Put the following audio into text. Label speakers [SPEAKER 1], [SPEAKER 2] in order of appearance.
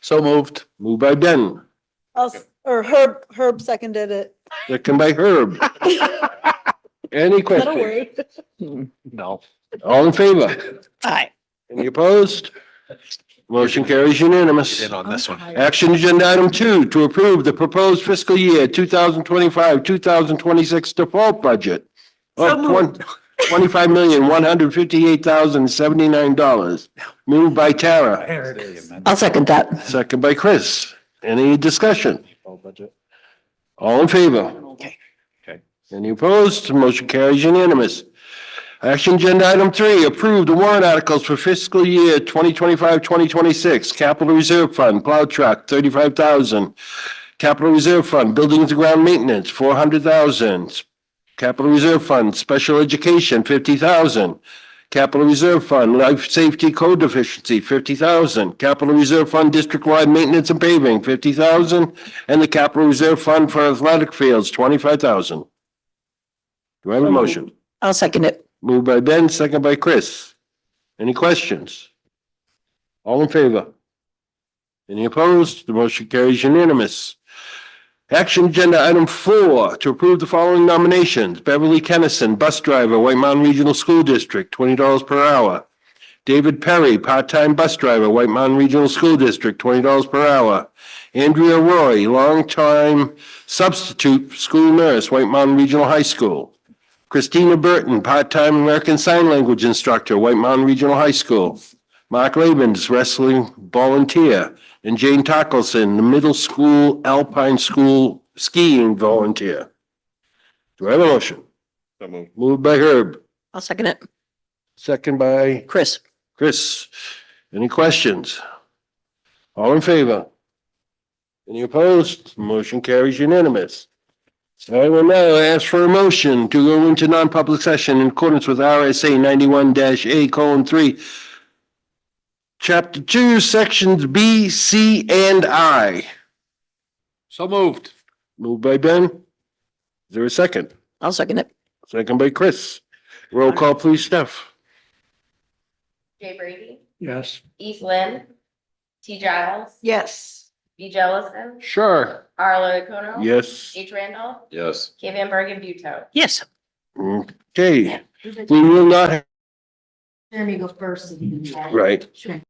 [SPEAKER 1] So moved.
[SPEAKER 2] Moved by Ben,
[SPEAKER 3] I'll, s- or Herb, Herb seconded it.
[SPEAKER 2] second by Herb. Any
[SPEAKER 3] That'll
[SPEAKER 2] questions?
[SPEAKER 3] work.
[SPEAKER 1] No.
[SPEAKER 2] All in favor?
[SPEAKER 3] Aye.
[SPEAKER 2] Any opposed? Motion carries unanimous.
[SPEAKER 1] on this one.
[SPEAKER 2] Action agenda item two, to approve the proposed fiscal year two thousand twenty-five, two thousand twenty-six default budget of twenty-five million, one hundred fifty-eight thousand, seventy-nine dollars. Moved by Tara,
[SPEAKER 1] There it is.
[SPEAKER 4] I'll second that.
[SPEAKER 2] second by Chris. Any discussion? All in favor?
[SPEAKER 4] Okay.
[SPEAKER 1] Okay.
[SPEAKER 2] Any opposed? Motion carries unanimous. Action agenda item three, approve the warrant articles for fiscal year 2025-2026. Capital Reserve Fund, plow truck, thirty-five thousand. Capital Reserve Fund, buildings and ground maintenance, four hundred thousand. Capital Reserve Fund, special education, fifty thousand. Capital Reserve Fund, life safety code deficiency, fifty thousand. Capital Reserve Fund, district-wide maintenance and paving, fifty thousand. And the Capital Reserve Fund for athletic fields, twenty-five thousand. Do I have a motion?
[SPEAKER 4] I'll second it.
[SPEAKER 2] Moved by Ben, second by Chris. Any questions? All in favor? Any opposed? The motion carries unanimous. Action agenda item four, to approve the following nominations. Beverly Kennison, bus driver, White Mountain Regional School District, twenty dollars per hour. David Perry, part-time bus driver, White Mountain Regional School District, twenty dollars per hour. Andrea Roy, longtime substitute school nurse, White Mountain Regional High School. Christina Burton, part-time American Sign Language instructor, White Mountain Regional High School. Mark Labens, wrestling volunteer, and Jane Tackleson, the middle school Alpine School skiing volunteer. Do I have a motion? Moved by Herb,
[SPEAKER 4] I'll second it.
[SPEAKER 2] second by
[SPEAKER 4] Chris,
[SPEAKER 2] Chris. Any questions? All in favor? Any opposed? Motion carries unanimous. So I will now ask for a motion to go into non-public session in accordance with RSA ninety-one A colon three. Chapter two, sections B, C, and I.
[SPEAKER 1] So moved.
[SPEAKER 2] Moved by Ben. Is there a second?
[SPEAKER 4] I'll second it.
[SPEAKER 2] Second by Chris. Roll call, please, Steph.
[SPEAKER 5] Jay Brady,
[SPEAKER 1] Yes.
[SPEAKER 5] Eve Lynn, T Giles,
[SPEAKER 3] Yes.
[SPEAKER 5] B Jellison,
[SPEAKER 1] Sure.
[SPEAKER 5] Arlo Acuna.
[SPEAKER 2] Yes.
[SPEAKER 5] H Randolph,
[SPEAKER 1] Yes.
[SPEAKER 5] K Van Bergen Buteau.
[SPEAKER 4] Yes.
[SPEAKER 2] Okay, we will not,
[SPEAKER 6] Jeremy go first.
[SPEAKER 2] right.
[SPEAKER 6] Sure.